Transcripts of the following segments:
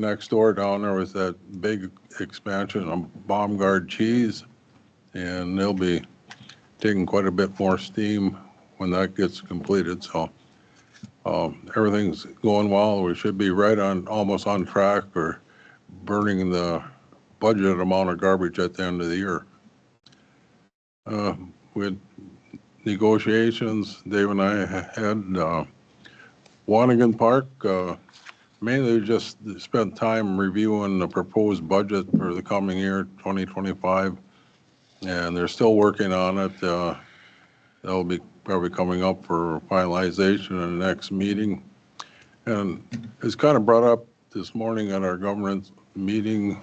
next door down there with that big expansion of Baumgard cheese, and they'll be taking quite a bit more steam when that gets completed, so um, everything's going well. We should be right on, almost on track or burning the budget amount of garbage at the end of the year. Uh, With negotiations, Dave and I had, uh, Wanigan Park, uh, Mainly just spent time reviewing the proposed budget for the coming year, 2025, and they're still working on it. uh, That'll be probably coming up for finalization in the next meeting. And it's kind of brought up this morning at our government meeting,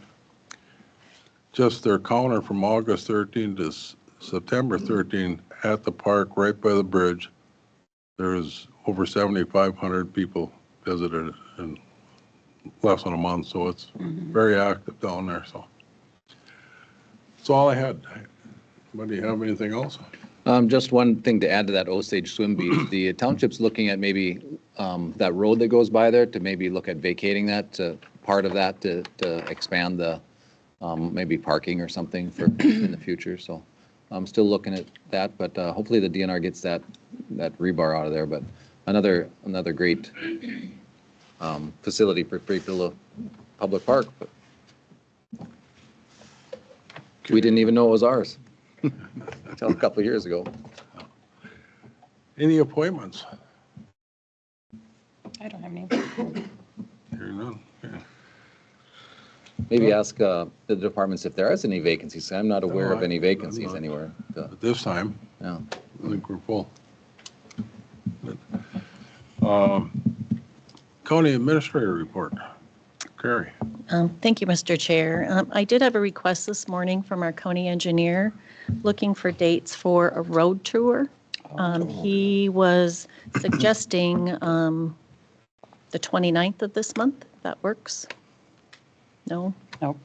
just their counter from August 13 to S- September 13 at the park right by the bridge. There's over 7,500 people visited and less than a month, so it's very active down there, so. That's all I had. Anybody have anything else? Um, just one thing to add to that Osage Swim Beach, the township's looking at maybe, um, that road that goes by there to maybe look at vacating that, to part of that, to, to expand the, um, maybe parking or something for, in the future, so. I'm still looking at that, but, uh, hopefully the DNR gets that, that rebar out of there, but another, another great, um, facility for Prepula Public Park, but we didn't even know it was ours until a couple of years ago. Any appointments? I don't have any. Hearing none. Okay. Maybe ask uh, the departments if there is any vacancies. I'm not aware No, of I- any I'm vacancies not. anywhere. Uh, At this time, yeah. I think we're full. Um, County Administrator Report. Carrie, Um, Thank you, Mr. Chair. Um, I did have a request this morning from our county engineer looking for dates for a road tour. Um, He was suggesting um, the 29th of this month, if that works. No? No.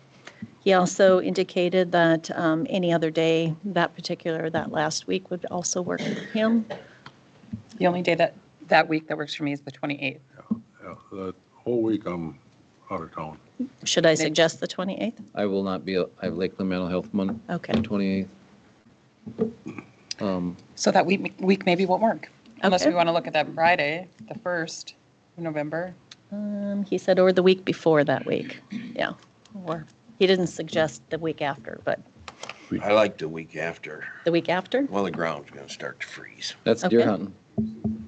He also indicated that um, any other day, that particular, that last week would also work for him. The only day that, that week that works for me is the 28th. yeah, uh, the whole week I'm out of town. Should I suggest the 28th? I will not be, uh, I have Lakeland Mental Health Month, Okay. 28th. Um, So that week, week maybe won't work. Unless we Okay. want to look at that Friday, the 1st of November. Um, He said, or the week before that week, yeah. Or, he didn't suggest the week after, but I like the week after. the week after? Well, the ground's gonna start to freeze. That's deer Okay. hunting.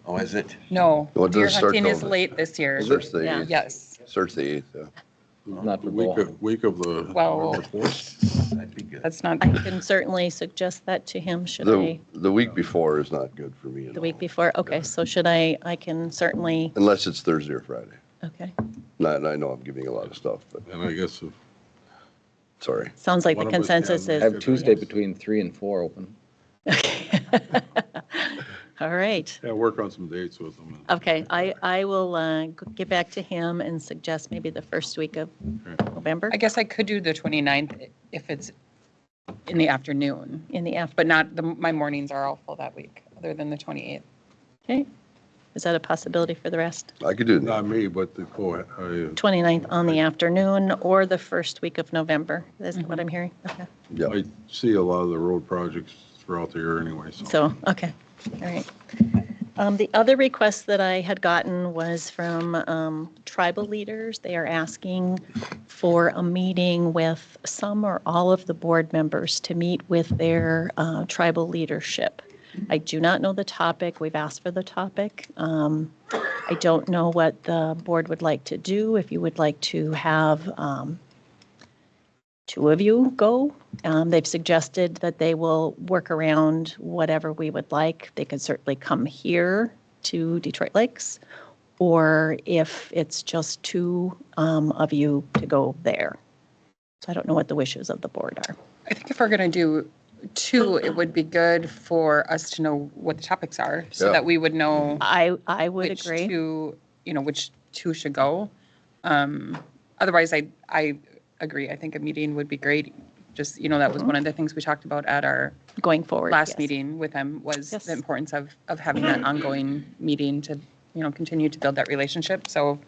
Oh, is it? No, Well, it deer doesn't start hunting is till- late this year. Starts the Yeah. 8th. Yes. Starts the 8th, yeah. Not for The Week bull. of, week of the. Well, That'd be good. that's not, I can certainly suggest that to him, should The, I, the week before is not good for me at the week all. before? Okay, so should I, I can certainly, Unless it's Thursday or Friday. okay. Not, and I know I'm giving a lot of stuff, but And I guess if sorry. Sounds like One the of us consensus I can- is, have Tuesday between 3 and 4 open. okay. All right, Yeah, work on some dates with them. and- okay, I, I will uh, g- get back to him and suggest maybe the first week of November I guess I could do the 29th if it's in the afternoon, in the afternoon. but not, the my mornings are all full that week, other than the 28th. Okay, is that a possibility for the rest? I could do Not that. me, but the, co- I- 29th on the afternoon or the first week of November, is what I'm hearing, okay. Yeah. I see a lot of the road projects throughout the year anyway, So, okay, all right. Um, The other request that I had gotten was from um, tribal leaders. They are asking for a meeting with some or all of the board members to meet with their uh, tribal leadership. I do not know the topic. We've asked for the topic. Um, I don't know what the board would like to do, if you would like to have um, two of you go. Um, They've suggested that they will work around whatever we would like. They could certainly come here to Detroit Lakes, or if it's just two um, of you to go there. So I don't know what the wishes of the board are. I think if we're going to do two, it would be good for us to know what the topics are, so Yeah. that we would know. I, I would which agree. two, you know, which two should go. Um, Otherwise, I, I agree. I think a meeting would be great. Just, you know, that was one of the things we talked about at our Going forward. Mm-hmm. yes. last meeting with them was Yes. the importance of, of having that ongoing meeting to, you know, continue to build that relationship. So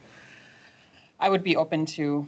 I would be open to